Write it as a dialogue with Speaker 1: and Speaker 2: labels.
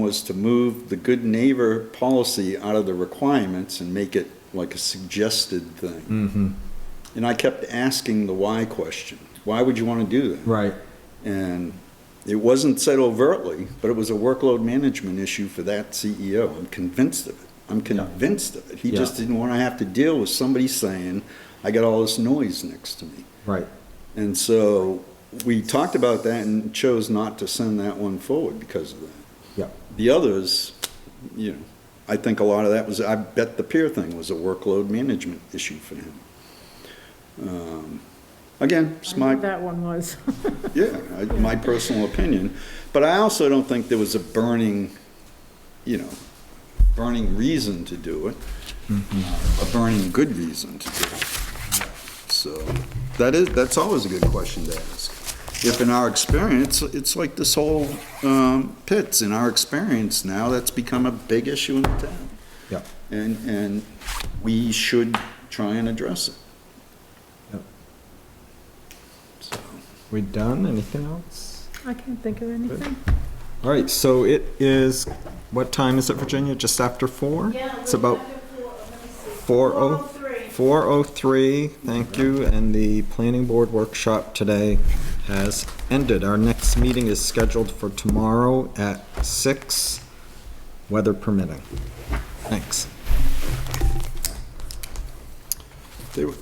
Speaker 1: was to move the good neighbor policy out of the requirements and make it like a suggested thing.
Speaker 2: Mm-hmm.
Speaker 1: And I kept asking the why question. Why would you want to do that?
Speaker 2: Right.
Speaker 1: And it wasn't said overtly, but it was a workload management issue for that CEO. I'm convinced of it. I'm convinced of it. He just
Speaker 2: Yeah.
Speaker 1: didn't want to have to deal with somebody saying, I got all this noise next to me.
Speaker 2: Right.
Speaker 1: And so we talked about that and chose not to send that one forward because of that.
Speaker 2: Yeah.
Speaker 1: The others, you know, I think a lot of that was, I bet the peer thing was a workload management issue for him. Um, Again, it's my.
Speaker 3: That one was.
Speaker 1: Yeah, I- my personal opinion. But I also don't think there was a burning, you know, burning reason to do it, Uh, a burning good reason to do it. So that is, that's always a good question to ask. If in our experience, it's like this whole um, pits, in our experience now, that's become a big issue in the town.
Speaker 2: Yeah.
Speaker 1: And, and we should try and address it.
Speaker 2: Yep.
Speaker 1: So.
Speaker 2: We done? Anything else?
Speaker 3: I can't think of anything.
Speaker 2: All right. So it is. What time is it, Virginia? Just after four.
Speaker 4: Yeah,
Speaker 2: It's about
Speaker 4: four,
Speaker 2: four
Speaker 4: let
Speaker 2: oh
Speaker 4: me see, 403.
Speaker 2: four oh three. Thank you. And the planning board workshop today has ended. Our next meeting is scheduled for tomorrow at six, weather permitting. Thanks.
Speaker 1: They were-